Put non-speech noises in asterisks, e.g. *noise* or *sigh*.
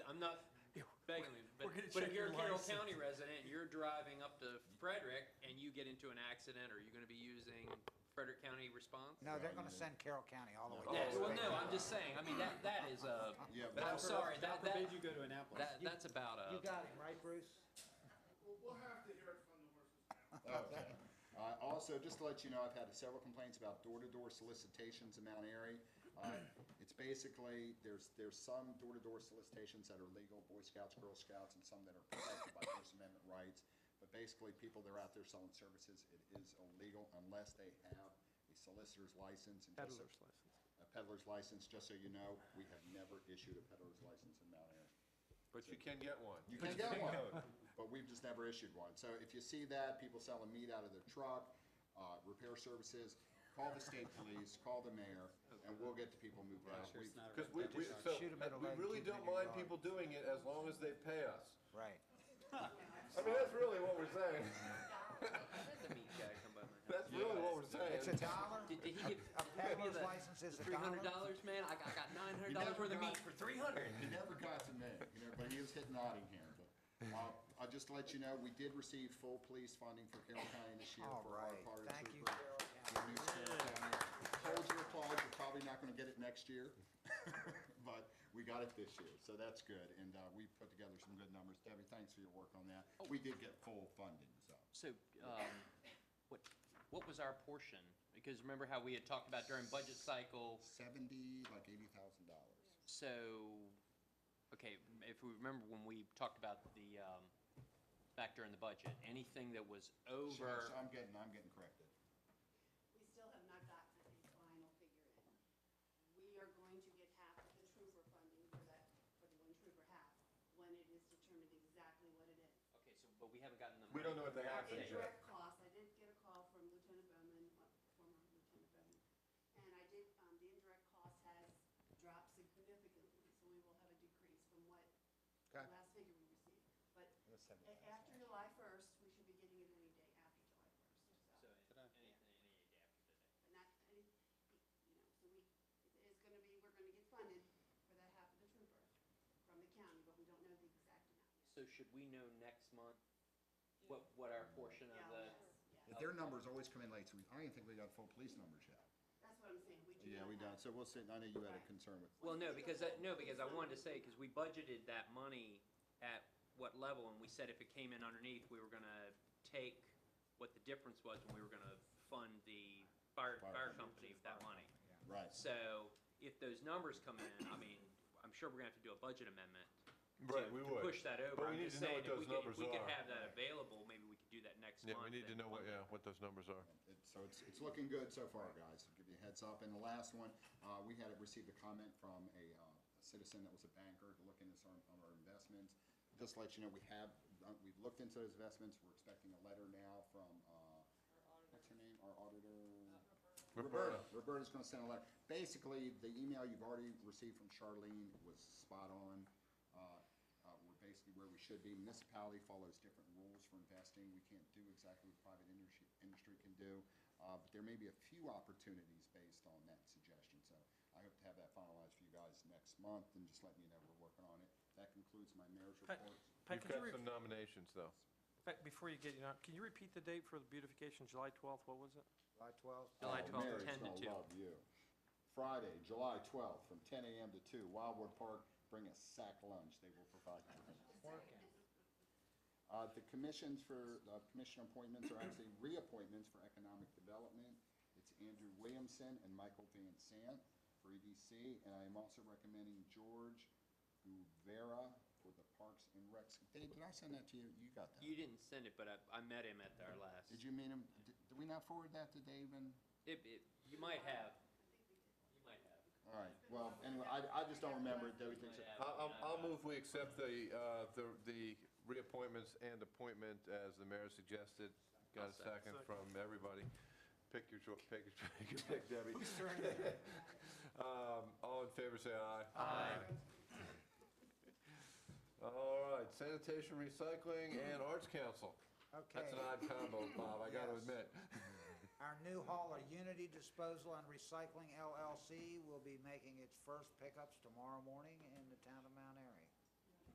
not begging you, but, we're gonna but if check you're a your Carroll license. County resident, you're driving up to Frederick and you get into an accident, are you gonna be using Frederick County response? No, they're gonna send Carroll County all the way. Yeah, well, no, I'm just saying, I mean, that, that is a, Yeah, but- I'm sorry, that, forbid you that, go to Annapolis. that, that's about a. You got him, right, Bruce? Well, we'll have to hear it from the horse's mouth. Okay. Uh, Also, just to let you know, I've had several complaints about door-to-door solicitations in Mount Airy. Uh, It's basically, there's, there's some door-to-door solicitations that are legal, Boy Scouts, Girl Scouts, and some that are protected by First Amendment rights. But basically, people that are out there selling services, it is illegal unless they have a solicitor's license. and just so- Peddler's license. A peddler's license, just so you know, we have never issued a peddler's license in Mount Airy. But you can get one. You can get one, but we've just never issued one. So if you see that, people selling meat out of their truck, uh, repair services, call the state police, call the mayor, and we'll get the people moved out. Sure, it's We've- not a Because we, we, residential. so, Shoot 'em in the we leg, really keep 'em don't in your mind yard. people doing it as long as they pay us. Right. I mean, that's really what we're saying. *laughs* Let the meat guy come by my house. *laughs* That's really what we're It's a saying. dollar? Did, did he give, A peddler's license is a three hundred dollar? dollars, man? I got, I got nine hundred You never dollars worth of got- meat for three hundred. He never got to me, you know, but he was hitting Nottingham. But, uh, I'll just let you know, we did receive full police funding for Carroll County this year All for our right, part of the thank you, trooper. Carroll County. Good news, Carroll County. Hold your applause, you're probably not gonna get it next year, *laughs* but we got it this year, so that's good. And, uh, we put together some good numbers. Debbie, thanks for your work on that. We did get full funding, so. So, um, what, what was our portion? Because remember how we had talked about during budget cycle, Seventy, like eighty thousand dollars. so, okay, if we remember when we talked about the, um, back during the budget, anything that was over, I'm getting, I'm getting corrected. We still have not gotten a final figure in. We are going to get half of the trooper funding for that, for the one trooper half, when it is determined exactly what it is. okay, so, but we haven't gotten the. We don't know what they Our have to do. indirect costs, I did get a call from Lieutenant Bowman, uh, former Lieutenant Bowman, and I did, um, the indirect cost has dropped significantly, so we will have a decrease from what the Okay. last figure we received. But a- after July first, we should be getting it any day after July first, So, anything, any day after today. but not, any- you know, so we, it's- it's gonna be, we're gonna get funded for that half of the trooper from the county, but we don't know the exact amount yet. So should we know next month what, what our portion of the? Yeah, yes, yeah. But their numbers always come in late, so we, I don't even think we got full police numbers yet. That's what I'm saying, we do Yeah, not we don't, have- so we'll sit, I know you had a concern with, Well, no, because, I- no, because I wanted to say, because we budgeted that money at what level, and we said if it came in underneath, we were gonna take what the difference was, and we were gonna fund the fire, Fire fire company company. with that money. right. So if those numbers come in, I mean, I'm sure we're gonna have to do a budget amendment. to- Right, we to would. Push that over. But we I'm need just to know saying, what if we those could- numbers If we could are. have that available, maybe we could do that next month. Yeah, we need to and know what, fund it. yeah, what those numbers are. It- So it's, it's looking good so far, guys, to give you a heads up. And the last one, uh, we had received a comment from a uh, a citizen that was a banker looking at some of our investments. Just to let you know, we have, uh, we've looked into those investments, we're expecting a letter now from, uh, what's her name, our auditor? Roberta, Roberta's gonna send a letter. Basically, the email you've already received from Charlene was spot on. Uh, uh, We're basically where we should be. Municipality follows different rules for investing. We can't do exactly what private industry, industry can do. Uh, But there may be a few opportunities based on that suggestion. So I hope to have that finalized for you guys next month and just letting you know we're working on it. That concludes my mayor's Pat, report. Pat, You've could you got re- some nominations, though. Pat, before you get, you know, can you repeat the date for the beautification, July 12th, what was it? July twelfth? July Oh, 12th, Mary's 10 to gonna 2. love you. Friday, July 12th, from 10 a.m. to 2, Wildwood Park, bring a sack lunch, they will provide drinks. Uh, The commissions for, uh, commission appointments are actually reappointments for economic development. It's Andrew Williamson and Michael Van Sant for EDC, and I am also recommending George Guvera for the Parks and Recs. Dave, did I send that to you? You got You that? didn't send it, but I, I met him at our last. Did you mean him, did- did we not forward that to Dave and? It, it, you might have. You might have. All right, well, anyway, I, I just don't remember it, though, things. I- I'll, I'll move we accept the, uh, the, the reappointments and appointment as the mayor suggested. Got a second from everybody. Pick your, cho- pick your, pick your pick, Debbie. *laughs* Um, All in favor, say aye. Aye. All right, sanitation, recycling, and arts council. That's an Okay, odd combo, Bob, I gotta Yes. admit. *laughs* our new hauler, Unity Disposal and Recycling LLC, will be making its first pickups tomorrow morning in the town of Mount Airy.